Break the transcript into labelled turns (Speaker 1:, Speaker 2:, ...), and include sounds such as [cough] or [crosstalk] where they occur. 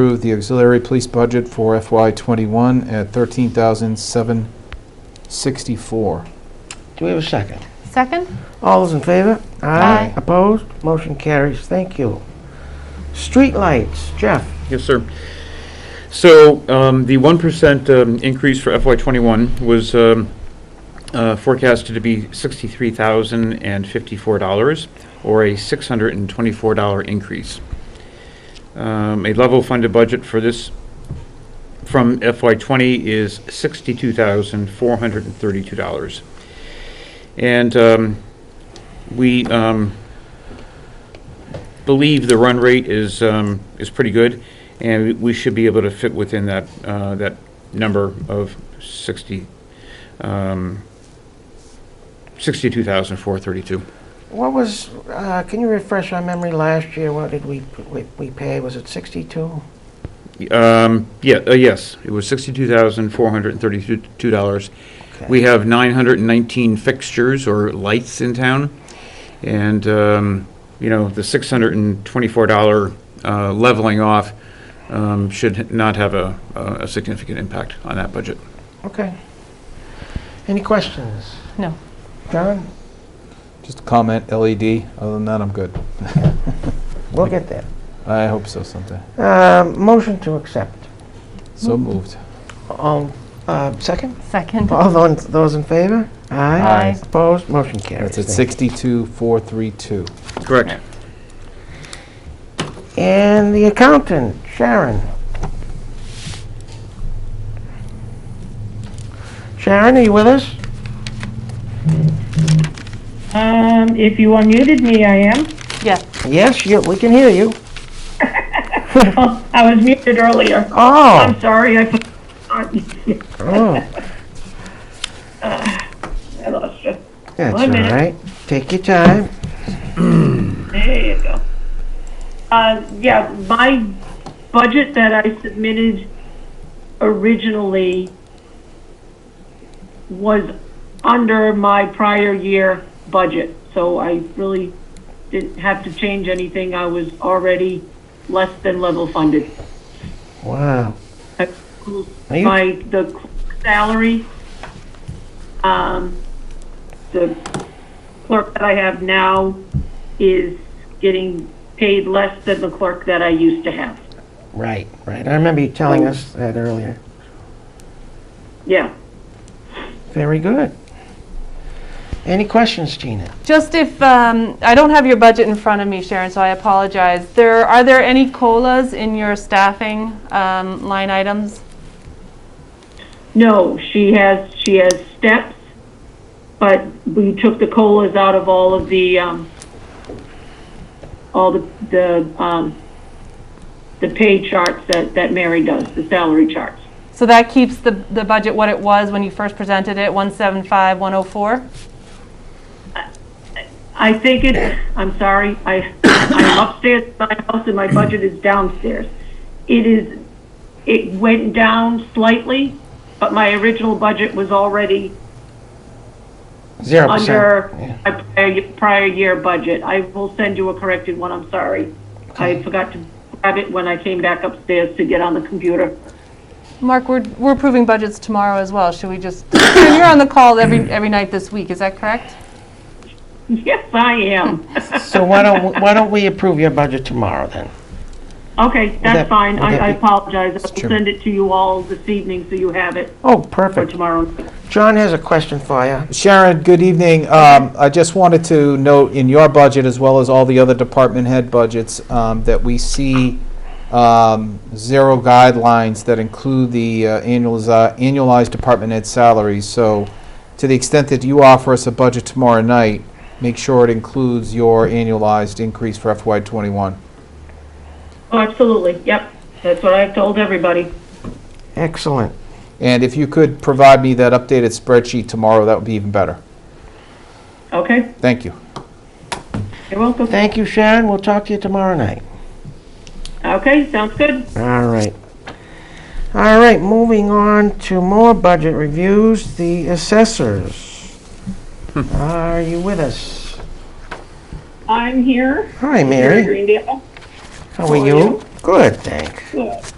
Speaker 1: Approve the auxiliary police budget for FY '21 at $13,764.
Speaker 2: Do we have a second?
Speaker 3: Second?
Speaker 2: All those in favor?
Speaker 3: Aye.
Speaker 2: Opposed? Motion carries. Thank you. Street lights, Jeff.
Speaker 4: Yes, sir. So um, the 1% um, increase for FY '21 was um, uh, forecasted to be $63,054, or a $624 increase. Um, A level funded budget for this from FY '20 is $62,432. And um, we um, believe the run rate is, um, is pretty good, and we should be able to fit within that, uh, that number of 60, um, 62,432.
Speaker 2: What was, uh, can you refresh our memory last year? What did we, we- we pay? Was it 62?
Speaker 4: Um, yeah, uh, yes, it was $62,432.
Speaker 2: Okay.
Speaker 4: We have 919 fixtures or lights in town, and, um, you know, the $624 uh, leveling off um, should not have a a significant impact on that budget.
Speaker 2: Okay. Any questions?
Speaker 3: No.
Speaker 2: John?
Speaker 1: Just a comment, LED, other than that, I'm good.
Speaker 2: We'll get there.
Speaker 1: I hope so someday.
Speaker 2: Um, Motion to accept.
Speaker 1: So moved.
Speaker 2: All, uh, second?
Speaker 3: Second.
Speaker 2: All those those in favor?
Speaker 3: Aye.
Speaker 2: Opposed? Motion carries.
Speaker 1: That's at
Speaker 2: Thank you.
Speaker 1: 62,432.
Speaker 4: Correct.
Speaker 2: And the accountant, Sharon. Sharon, are you with us?
Speaker 5: Um, if you unmuted me, I am.
Speaker 3: Yes.
Speaker 2: Yes, you, we can hear you.
Speaker 5: Oh, I was muted earlier.
Speaker 2: Oh,
Speaker 5: I'm sorry, I,
Speaker 2: oh,
Speaker 5: [laughs] I lost you.
Speaker 2: that's all
Speaker 5: One minute.
Speaker 2: right. Take your time.
Speaker 5: There you go. Uh, yeah, my budget that I submitted originally was under my prior year budget, so I really didn't have to change anything. I was already less than level funded.
Speaker 2: Wow. Are you-
Speaker 5: my, the salary, um, the clerk that I have now is getting paid less than the clerk that I used to have.
Speaker 2: Right, right. I remember you telling us that earlier.
Speaker 5: Yeah.
Speaker 2: Very good. Any questions, Gina?
Speaker 3: Just if, um, I don't have your budget in front of me, Sharon, so I apologize. There, are there any COLAs in your staffing um, line items?
Speaker 5: No, she has, she has steps, but we took the COLAs out of all of the, um, all the, the, um, the pay charts that, that Mary does, the salary charts.
Speaker 3: So that keeps the, the budget what it was when you first presented it, 175, 104?
Speaker 5: I think it, I'm sorry, I, I'm upstairs in my house and my budget is downstairs. It is, it went down slightly, but my original budget was already
Speaker 2: Zero percent.
Speaker 5: under
Speaker 2: Yeah.
Speaker 5: my prior- prior year budget. I will send you a corrected one, I'm sorry. I forgot to grab it when I came back upstairs to get on the computer. [laughs]
Speaker 3: Mark, we're, we're approving budgets tomorrow as well. Should we [coughs] just, Sharon, you're on the call every, every night this week, is that correct?
Speaker 5: Yes, I am.
Speaker 2: So why don't, why don't we approve your budget tomorrow then?
Speaker 5: Okay,
Speaker 2: that-
Speaker 5: that's fine,
Speaker 2: would
Speaker 5: I
Speaker 2: that
Speaker 5: I
Speaker 2: be-
Speaker 5: apologize. I'll
Speaker 1: Chairman.
Speaker 5: send it to you all this evening so you have it
Speaker 2: Oh,
Speaker 5: for
Speaker 2: perfect.
Speaker 5: tomorrow.
Speaker 2: John has a question for you.
Speaker 1: Sharon, good evening. Um, I just wanted to note in your budget, as well as all the other department head budgets, um, that we see um, zero guidelines that include the uh, annualize- annualized department head salaries. So to the extent that you offer us a budget tomorrow night, make sure it includes your annualized increase for FY '21.
Speaker 5: Oh, absolutely, yep. That's what I've told everybody.
Speaker 2: Excellent.
Speaker 1: And if you could provide me that updated spreadsheet tomorrow, that would be even better.
Speaker 5: Okay,
Speaker 1: Thank you.
Speaker 5: you're welcome.
Speaker 2: Thank you, Sharon. We'll talk to you tomorrow night.
Speaker 5: Okay, sounds good.
Speaker 2: All right. All right, moving on to more budget reviews, the assessors. Are you with us?
Speaker 5: I'm here.
Speaker 2: Hi,
Speaker 5: Mary
Speaker 2: Mary.
Speaker 5: Greendale.
Speaker 2: How are you? Good, thanks.